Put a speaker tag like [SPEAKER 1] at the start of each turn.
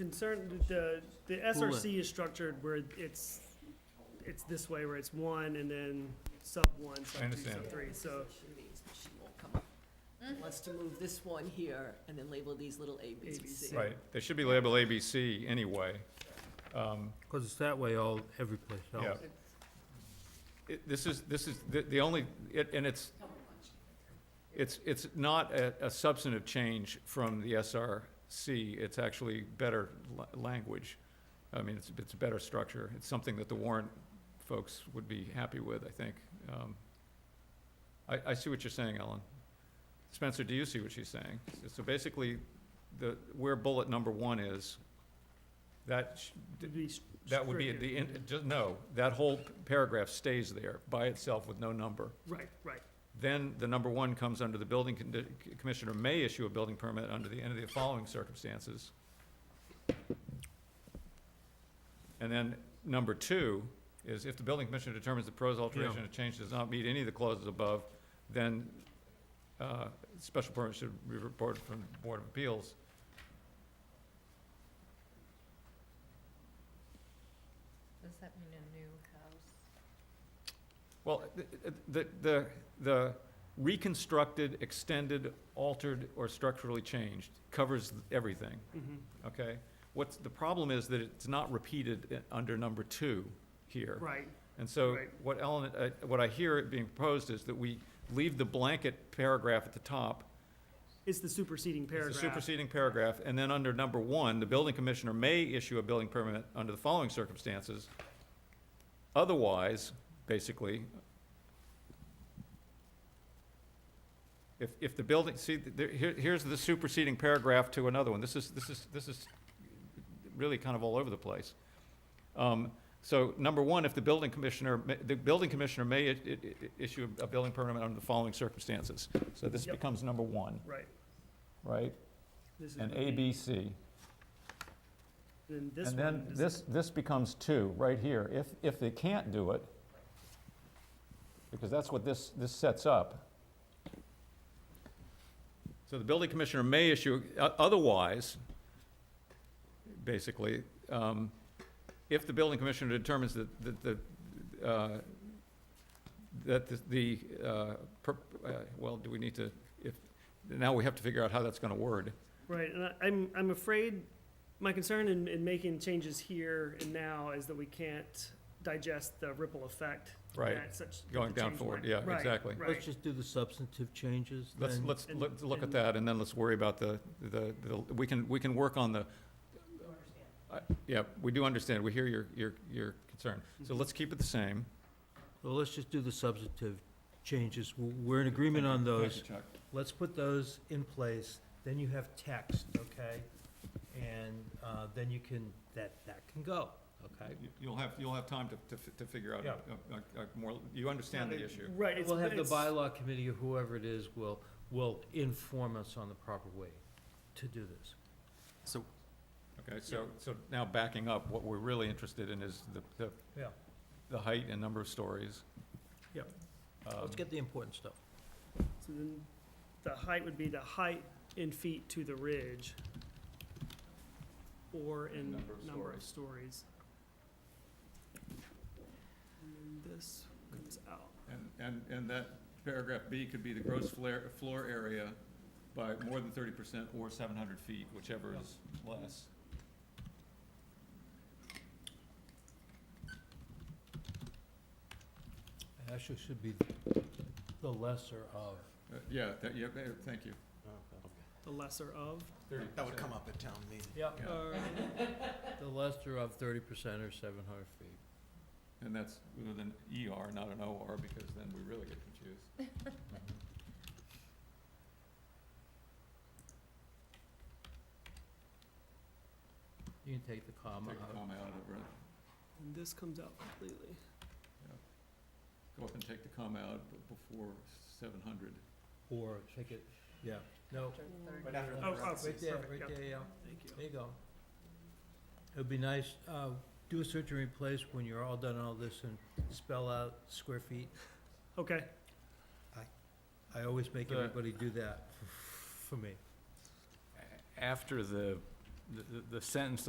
[SPEAKER 1] concern, the, the SRC is structured where it's, it's this way, where it's one and then sub one, sub two,
[SPEAKER 2] understand.
[SPEAKER 1] sub three, so.
[SPEAKER 3] She won't come up. Wants to move this one here and then label these little A, B, C, C.
[SPEAKER 1] ABC.
[SPEAKER 2] Right, they should be labeled ABC anyway. Um,
[SPEAKER 4] Because it's that way all, every place
[SPEAKER 2] Yeah.
[SPEAKER 4] else.
[SPEAKER 2] It- This is, this is the- the only, it- and it's, it's, it's not a a substantive change from the SRC. It's actually better la- language. I mean, it's, it's a better structure. It's something that the warrant folks would be happy with, I think. Um, I, I see what you're saying, Ellen. Spencer, do you see what she's saying? So basically, the, where bullet number one is, that, sh-
[SPEAKER 1] it'd be s-
[SPEAKER 2] that would be, at
[SPEAKER 1] stricter.
[SPEAKER 2] the, end- just, no, that whole paragraph stays there by itself with no number.
[SPEAKER 1] Right, right,
[SPEAKER 2] Then the number one comes under the building condi- commissioner may issue a building permit under the end of the following circumstances. And then number two is if the building commissioner determines the proposed alteration or change does not meet any of the clauses above, then, uh, special permit should be reported from the Board of Appeals.
[SPEAKER 5] Does that mean a new house?
[SPEAKER 2] Well, th- th- the, the, the reconstructed, extended, altered, or structurally changed covers everything,
[SPEAKER 1] mhm,
[SPEAKER 2] okay? What's, the problem is that it's not repeated i- under number two here.
[SPEAKER 1] right,
[SPEAKER 2] And so
[SPEAKER 1] Right.
[SPEAKER 2] what Ellen, uh, what I hear it being proposed is that we leave the blanket paragraph at the top.
[SPEAKER 1] it's the superseding
[SPEAKER 2] It's the
[SPEAKER 1] paragraph,
[SPEAKER 2] superseding paragraph, and then under number one, the building commissioner may issue a building permit under the following circumstances. Otherwise, basically, if, if the building, see, there, here, here's the superseding paragraph to another one. This is, this is, this is really kind of all over the place. Um, so number one, if the building commissioner, ma- the building commissioner may i- i- i- issue a building permit under the following circumstances. So this
[SPEAKER 1] Yep.
[SPEAKER 2] becomes number one,
[SPEAKER 1] right.
[SPEAKER 2] right?
[SPEAKER 1] This is
[SPEAKER 2] and
[SPEAKER 1] what we-
[SPEAKER 2] A, B, C.
[SPEAKER 1] Then this
[SPEAKER 2] And then
[SPEAKER 1] one is-
[SPEAKER 2] this, this becomes two, right here. If, if they can't do it, because that's what this, this sets up. So the building commissioner may issue, o- otherwise, basically, um, if the building commissioner determines that, that, the, uh, that the- the, uh, per- uh, well, do we need to, if, now we have to figure out how that's gonna word.
[SPEAKER 1] Right, and I- I'm, I'm afraid, my concern in, in making changes here and now is that we can't digest the ripple effect.
[SPEAKER 2] Right.
[SPEAKER 1] that such-
[SPEAKER 2] Going
[SPEAKER 1] the
[SPEAKER 2] down
[SPEAKER 1] change
[SPEAKER 2] forward,
[SPEAKER 1] might-
[SPEAKER 2] yeah,
[SPEAKER 1] right,
[SPEAKER 2] exactly.
[SPEAKER 4] Let's
[SPEAKER 1] Right,
[SPEAKER 4] just do the substantive changes
[SPEAKER 2] Let's,
[SPEAKER 4] then.
[SPEAKER 2] let's,
[SPEAKER 1] And-
[SPEAKER 2] let's look at
[SPEAKER 1] and-
[SPEAKER 2] that, and then let's worry about the, the, the- we can, we can work on the. I- Yeah, we do understand, we hear your, your, your concern. So
[SPEAKER 4] Mm-hmm.
[SPEAKER 2] let's keep it the same.
[SPEAKER 4] Well, let's just do the substantive changes. W- We're in agreement on those. Let's put those in place, then you have text, okay? And uh, then you can, that, that can go, okay?
[SPEAKER 2] You- You'll have, you'll have time to, to, fi- to figure out, uh,
[SPEAKER 4] Yeah.
[SPEAKER 2] a- a- a more, you understand the issue.
[SPEAKER 1] right. it's-
[SPEAKER 4] We'll have the
[SPEAKER 1] it's-
[SPEAKER 4] bylaw committee or whoever it is will, will inform us on the proper way to do this.
[SPEAKER 2] Okay, so, so now backing up, what we're really interested in is the, the,
[SPEAKER 4] Yeah.
[SPEAKER 2] the height and number of stories.
[SPEAKER 4] Yep.
[SPEAKER 2] Um,
[SPEAKER 4] Let's get the important stuff.
[SPEAKER 1] So then the height would be the height in feet to the ridge or in
[SPEAKER 2] Number of
[SPEAKER 1] number of stories. And then this comes out.
[SPEAKER 2] And, and, and that paragraph B could be the gross flare, floor area by more than thirty percent or seven hundred feet, whichever is less.
[SPEAKER 4] Actually, should be the lesser of.
[SPEAKER 2] Uh, Yeah, that, yeah, eh, thank you.
[SPEAKER 1] The lesser of,
[SPEAKER 6] That would come up at town meeting.
[SPEAKER 4] Yep.
[SPEAKER 2] Yeah.
[SPEAKER 1] or,
[SPEAKER 4] The lesser of thirty percent or seven hundred feet.
[SPEAKER 2] And that's with an ER, not an OR, because then we really get confused.
[SPEAKER 4] You can take the comma
[SPEAKER 2] Take a
[SPEAKER 4] out.
[SPEAKER 2] comma out of it,
[SPEAKER 1] and this comes out completely.
[SPEAKER 2] go up and take the comma out b- before seven hundred.
[SPEAKER 4] Or take it, yeah, no.
[SPEAKER 6] Right after the
[SPEAKER 1] Oh, oh,
[SPEAKER 6] parentheses.
[SPEAKER 4] Right there,
[SPEAKER 1] perfect,
[SPEAKER 4] right
[SPEAKER 1] yep.
[SPEAKER 4] there, yeah,
[SPEAKER 1] Thank you.
[SPEAKER 4] there you go. It'd be nice, uh, do a search and replace when you're all done all this and spell out square feet.
[SPEAKER 1] Okay,
[SPEAKER 4] I always make
[SPEAKER 7] The-
[SPEAKER 4] everybody do that for me.
[SPEAKER 7] after the, the- the sentence